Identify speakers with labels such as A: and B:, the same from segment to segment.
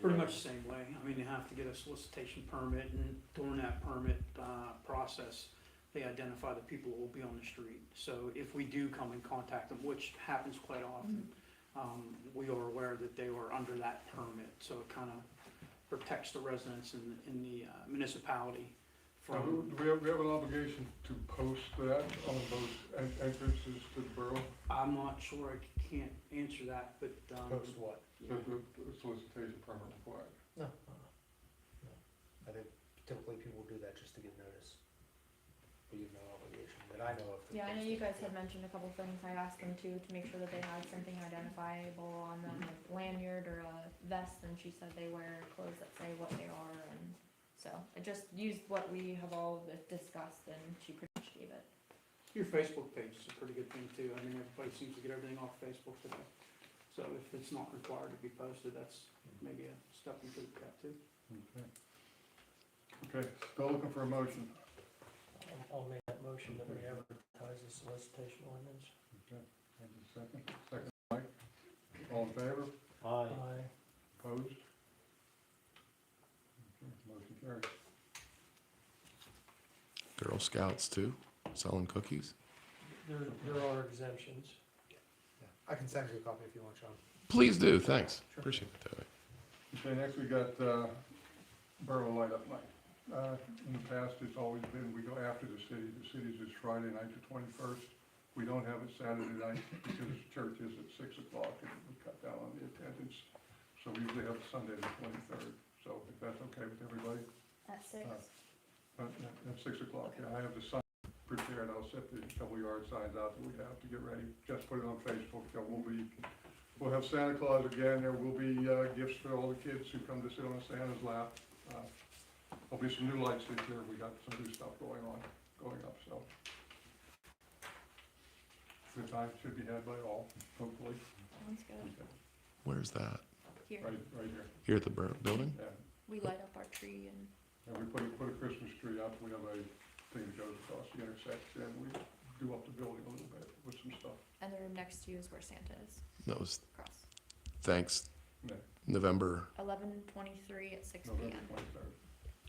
A: Pretty much the same way. I mean, they have to get a solicitation permit and during that permit, uh, process, they identify the people who will be on the street. So if we do come and contact them, which happens quite often, um, we are aware that they were under that permit. So it kind of protects the residents in, in the uh, municipality
B: Uh,
A: from,
B: Do we have, we have an obligation to post that on those en- entrances to the borough,
A: I'm not sure, I can't answer that, but, um.
C: Post what?
B: the, the solicitation permit required?
C: No, no, no. I think typically people do that just to get notice. But you have no obligation, that I know of. to
D: Yeah, I know
C: post
D: you
C: it.
D: guys had mentioned a couple things, I asked them too, to make sure that they had something identifiable on them, like lanyard or a vest, and she said they wear clothes that say what they are, and so, I just used what we have all discussed, and she pretty much gave it.
A: Your Facebook page is a pretty good thing too. I mean, everybody seems to get everything off Facebook today. So if it's not required to be posted, that's maybe a step you could cut too.
B: Okay. Okay, still looking for a motion.
E: I'll- I'll make that motion that we advertise the solicitation ordinance.
B: Okay, Thank you. Second, second, Mike. All in favor?
E: Aye.
B: Opposed? Okay, Motion carries.
F: Girl Scouts too, selling cookies.
E: There, there are exemptions.
C: Yeah. I can send you a copy if you want, Sean.
F: Please do. Thanks.
C: Sure.
F: Appreciate it, Toby.
B: Okay, next we got, uh, Borough Light Up Night. Uh, in the past, it's always been, we go after the city, the city's is Friday night to twenty-first. We don't have it Saturday night because church is at six o'clock and we cut down on the attendance. So we usually have Sunday the twenty-third, so if that's okay with everybody,
D: At six?
B: uh, at, at six o'clock, yeah, I have the sign prepared, I'll set the couple yard signs out that we have to get ready. Just put it on Facebook, there will be, we'll have Santa Claus again, there will be, uh, gifts for all the kids who come to sit on Santa's lap. Uh, There'll be some new lights this year, we got some new stuff going on, going up, so. Good time should be had by all, hopefully,
D: Sounds good.
F: Where's that?
D: Here,
B: right, right here,
F: Here at the bur- building?
B: yeah.
D: we light up our tree and
B: And we put, put a Christmas tree up, we have a thing that goes across the intersection, we do up the building a little bit with some stuff.
D: And the room next to you is where Santa is,
F: That was
D: across.
F: thanks.
B: No.
F: November.
D: Eleven twenty-three at six P
B: November
D: M.
B: twenty-third,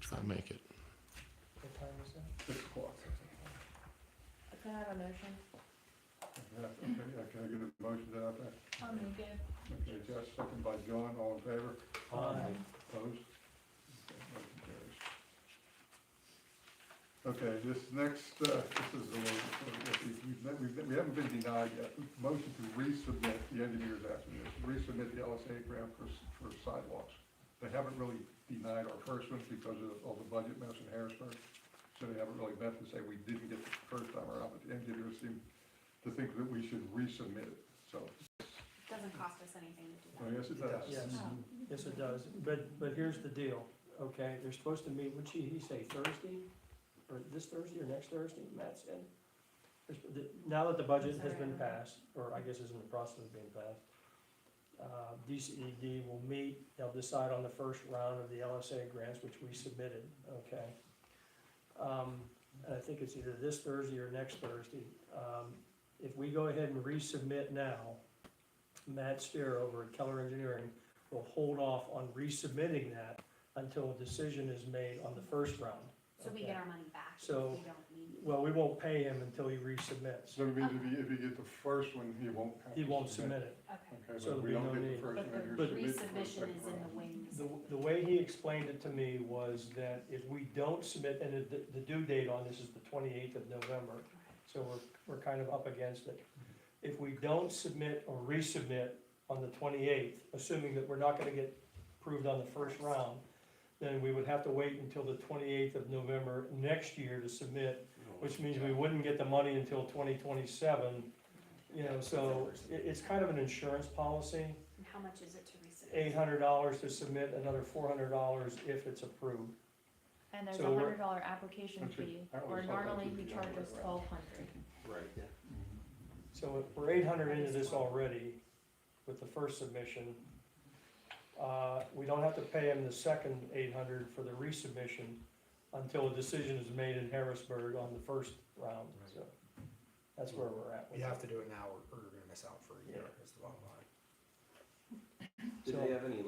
F: Try to make it.
E: What time is that?
B: six o'clock.
D: Can I have a motion?
B: Yeah, okay, yeah, can I get a motion to that? effect?
D: I'll make it.
B: Okay, Jess, second by John, all in favor,
E: Aye.
B: opposed? Okay, motion carries. Okay, this next, uh, this is a little, we've, we've, we haven't been denied yet, motion to resubmit, the engineer's asking this, resubmit the LSA grant for, s- for sidewalks. They haven't really denied our first one because of all the budget mess in Harrisburg, so they haven't really met to say we didn't get it the first time around, but the engineers seem to think that we should resubmit it, so,
D: Doesn't cost us anything to do
B: I guess it does.
E: Yes.
D: Oh.
E: Yes, it does, but, but here's the deal, okay, they're supposed to meet, what'd she, he say, Thursday? Or this Thursday or next Thursday, Matt said? There's- the- Now that the budget has been passed, or I guess is in the process of being passed, uh, DCED will meet, they'll decide on the first round of the LSA grants, which we submitted, okay? Um, and I think it's either this Thursday or next Thursday. Um, if we go ahead and resubmit now, Matt Steer over at Keller Engineering will hold off on resubmitting that until a decision is made on the first round.
G: So we
E: okay?
G: get our money back if we
E: So-
G: don't need it.
E: Well, we won't pay him until he resubmits.
B: So it means if you, if you get the first one, you won't have to.
E: He won't submit it.
G: Okay.
B: Okay,
E: So
B: but we
E: there'll
B: don't
E: be no
B: get
E: need.
B: the first
G: But
B: one,
G: the
B: you're submitted for the
G: resubmission
B: second
G: is in the
B: round.
G: wings.
E: The, the way he explained it to me was that if we don't submit, and the, the due date on this is the twenty-eighth of November, so we're, we're kind of up against it. If we don't submit or resubmit on the twenty-eighth, assuming that we're not gonna get approved on the first round, then we would have to wait until the twenty-eighth of November next year to submit, which means we wouldn't get the money until twenty twenty-seven. You know, so it, it's kind of an insurance policy
G: And how much is it to resubmit?
E: eight hundred dollars to submit, another four hundred dollars if it's approved.
D: And there's a
E: So we're-
D: hundred dollar application
B: Okay,
D: fee,
B: I
D: where
B: always thought that
D: normally
B: would
D: he
B: be the other
D: charges
B: way around.
D: twelve hundred.
C: Right. Yeah.
E: So if we're eight hundred into this already with the first submission. Uh, we don't have to pay him the second eight hundred for the resubmission until a decision is made in Harrisburg on the first round, so. That's where we're at with
C: You have
E: that.
C: to do it now or or you're gonna miss out for a year, is the bottom line.
E: So-
H: have any